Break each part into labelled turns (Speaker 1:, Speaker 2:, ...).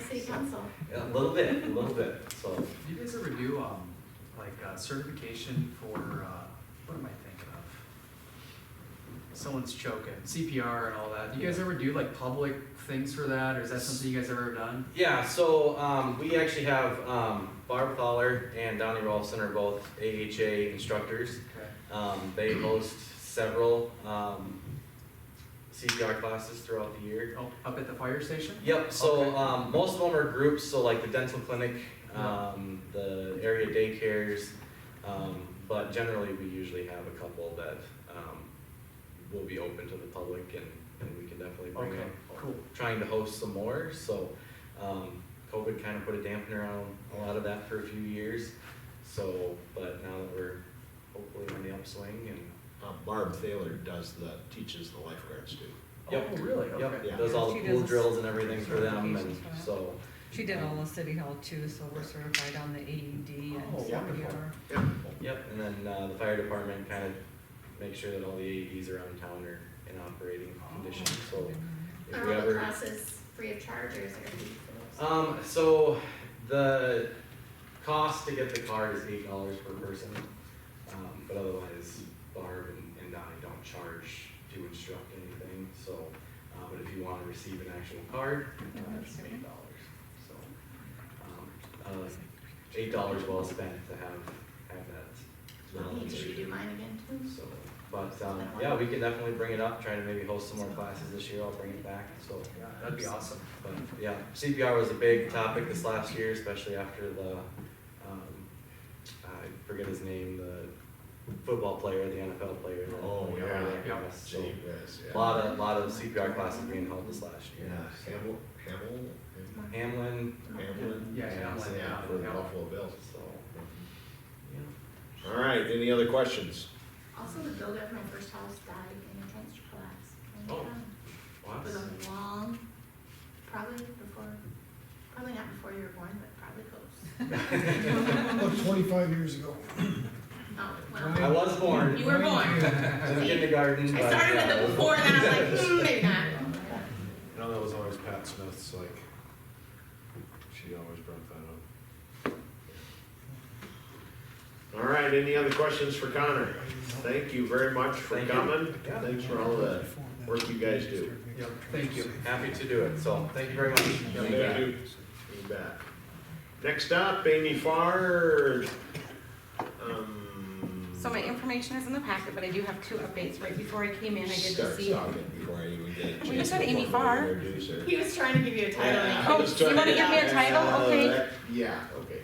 Speaker 1: city council.
Speaker 2: A little bit, a little bit, so.
Speaker 3: Do you guys ever do, um, like uh, certification for, uh, what am I thinking of? Someone's choking, CPR and all that. Do you guys ever do like public things for that, or is that something you guys ever done?
Speaker 4: Yeah, so um, we actually have um, Barb Fowler and Donnie Rolfson are both AHA instructors.
Speaker 3: Okay.
Speaker 4: Um, they host several um, CPR classes throughout the year.
Speaker 3: Oh, up at the fire station?
Speaker 4: Yep, so
Speaker 3: Okay.
Speaker 4: um, most of them are groups, so like the dental clinic,
Speaker 3: Uh-huh.
Speaker 4: um, the area daycares, um, but generally we usually have a couple that um, will be open to the public and, and we can definitely bring
Speaker 3: Okay,
Speaker 4: up.
Speaker 3: cool.
Speaker 4: Trying to host some more, so um, COVID kind of put a dampener on a lot of that for a few years. So, but now that we're hopefully on the upswing and
Speaker 5: Uh, Barb Thaler does the, teaches the lifeguards too.
Speaker 4: Yep.
Speaker 3: Oh, really? Okay.
Speaker 5: Yeah.
Speaker 4: does all the
Speaker 6: She
Speaker 4: pool
Speaker 6: does
Speaker 4: drills and everything for them and
Speaker 6: certifications for that.
Speaker 4: so.
Speaker 6: She did all the city hall too, so we're certified on the AED
Speaker 3: Oh,
Speaker 6: and
Speaker 3: wonderful.
Speaker 6: CPR.
Speaker 5: Yep.
Speaker 4: Yep, and then uh, the fire department kind of makes sure that all the AEDs around town are in operating condition, so
Speaker 6: Mm-hmm.
Speaker 4: if
Speaker 1: Are
Speaker 4: we
Speaker 1: all the
Speaker 4: ever.
Speaker 1: classes um, free of charge or is there a fee for those?
Speaker 4: Um, so the cost to get the card is eight dollars per person, um, but otherwise Barb and, and Donnie don't charge to instruct anything, so. Uh, but if you want to receive an actual card, uh, it's eight dollars, so. um, uh, Eight dollars well spent to have, have that.
Speaker 1: Let me
Speaker 4: knowledge.
Speaker 1: just redo mine again, please.
Speaker 4: So, but, um, yeah, we can definitely bring it up, try to maybe host some more classes this year, I'll bring it back, so.
Speaker 3: Yeah, that'd be awesome.
Speaker 4: But, yeah, CPR was a big topic this last year, especially after the, um, I forget his name, the football player, the NFL player. that-
Speaker 5: Oh, yeah.
Speaker 4: Yeah, so,
Speaker 5: Gee whiz, yeah.
Speaker 4: lot of, lot of CPR classes being held this last
Speaker 5: Yeah,
Speaker 4: year.
Speaker 5: Hamel, Hamel, Ham-
Speaker 4: Hamlin,
Speaker 5: Hamlin?
Speaker 3: Yeah, Hamlin,
Speaker 5: Yeah,
Speaker 3: yeah,
Speaker 5: for the
Speaker 3: yeah.
Speaker 5: Buffalo Bills.
Speaker 4: so, yeah.
Speaker 5: All right, any other questions?
Speaker 1: Also, the builder of my first house died in a transfer collapse. And,
Speaker 4: Oh.
Speaker 1: um, It was
Speaker 4: Wow.
Speaker 1: a long, probably before, probably not before you were born, but probably close.
Speaker 7: About twenty-five years ago.
Speaker 1: Oh,
Speaker 4: I
Speaker 1: well,
Speaker 4: was born,
Speaker 1: you were born.
Speaker 4: just kindergarten,
Speaker 1: I
Speaker 4: but,
Speaker 1: started with
Speaker 4: yeah.
Speaker 1: the before and then I'm like, hmm, maybe not.
Speaker 8: You know, that was always Pat Smith's, like, she always brought that up.
Speaker 5: All right, any other questions for Connor? Thank you very much for
Speaker 4: Thank you.
Speaker 5: coming.
Speaker 4: Yeah.
Speaker 5: Thanks for all the work you guys do.
Speaker 3: Yep, thank you.
Speaker 4: Happy to do it, so, thank you very much.
Speaker 5: You bet. You bet. Next up, Amy Farr. Um,
Speaker 9: So my information is in the packet, but I do have two updates. Right before I came in, I did
Speaker 5: Start
Speaker 9: receive.
Speaker 5: talking before I even get a
Speaker 9: We
Speaker 5: chance
Speaker 9: just had
Speaker 5: to
Speaker 9: Amy
Speaker 5: formally
Speaker 9: Farr.
Speaker 5: introduce her.
Speaker 1: He was trying to give you a title. and
Speaker 5: Yeah,
Speaker 1: you
Speaker 5: I
Speaker 9: Oh,
Speaker 5: was
Speaker 9: you wanna
Speaker 5: trying-
Speaker 9: give me a title?
Speaker 5: Uh,
Speaker 9: Okay.
Speaker 5: that- Yeah, okay,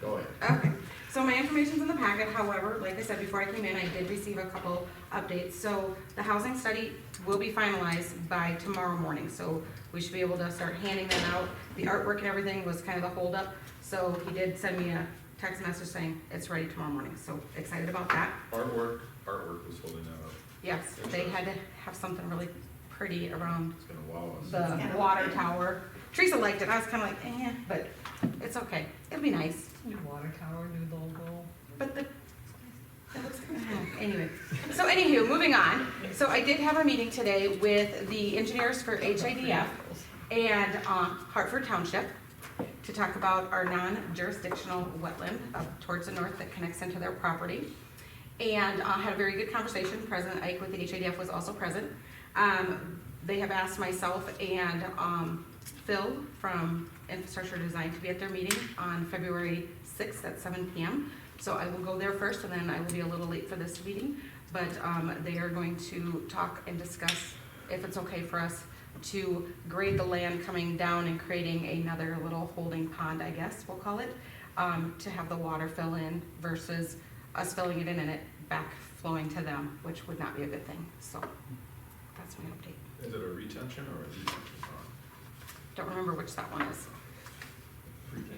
Speaker 5: go ahead.
Speaker 9: Okay, so my information's in the packet, however, like I said, before I came in, I did receive a couple updates. So the housing study will be finalized by tomorrow morning, so we should be able to start handing them out. The artwork and everything was kind of the holdup, so he did send me a text message saying it's ready tomorrow morning, so excited about that.
Speaker 8: Artwork, artwork was holding that up,
Speaker 9: Yes, they had to have something really pretty around
Speaker 8: it's gonna wow us.
Speaker 9: the water tower. Teresa liked it, I was kinda like, eh, but it's okay, it'll be nice,
Speaker 6: New water tower, new logo.
Speaker 9: but the, that looks kinda, anyway. So anywho, moving on, so I did have a meeting today with the engineers for HIDF and, um, Hartford Township to talk about our non-jurisdictional wetland up towards the north that connects into their property. And uh, had a very good conversation, President Ike with the HADF was also present. Um, They have asked myself and um, Phil from Infrastructure Design to be at their meeting on February 6th at seven PM. So I will go there first and then I will be a little late for this meeting. But um, they are going to talk and discuss if it's okay for us to grade the land coming down and creating another little holding pond, I guess we'll call it, um, to have the water fill in versus us filling it in and it back flowing to them, which would not be a good thing. So that's my update.
Speaker 8: Is it a retention or a detention pond?
Speaker 9: Don't remember which that one is.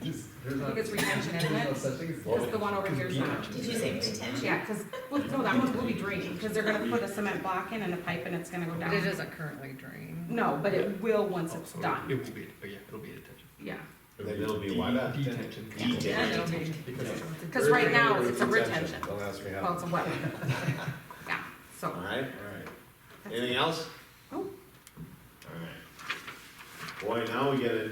Speaker 3: There's
Speaker 9: I think
Speaker 3: a-
Speaker 9: it's retention, isn't
Speaker 3: there's no
Speaker 9: it?
Speaker 3: such thing as-
Speaker 9: Because the one over here is not.
Speaker 1: Did you say retention?
Speaker 9: Yeah, because, well, no, that one will be draining, because they're gonna put a cement block in and a pipe and it's gonna go
Speaker 6: But it
Speaker 9: down.
Speaker 6: doesn't currently drain.
Speaker 9: No, but it will once it's done,
Speaker 10: Oh, It will be, but yeah, it'll be detention.
Speaker 9: yeah.
Speaker 5: Then it'll be wide up.
Speaker 10: Detention.
Speaker 5: Detail.
Speaker 6: It'll be-
Speaker 9: Because right now, it's a retention.
Speaker 8: Don't ask me
Speaker 9: Well,
Speaker 8: how.
Speaker 9: it's a wetland. Yeah, so. Oh.
Speaker 5: All right, all right. Anything else?
Speaker 9: Nope.
Speaker 5: All right. Boy, now we get a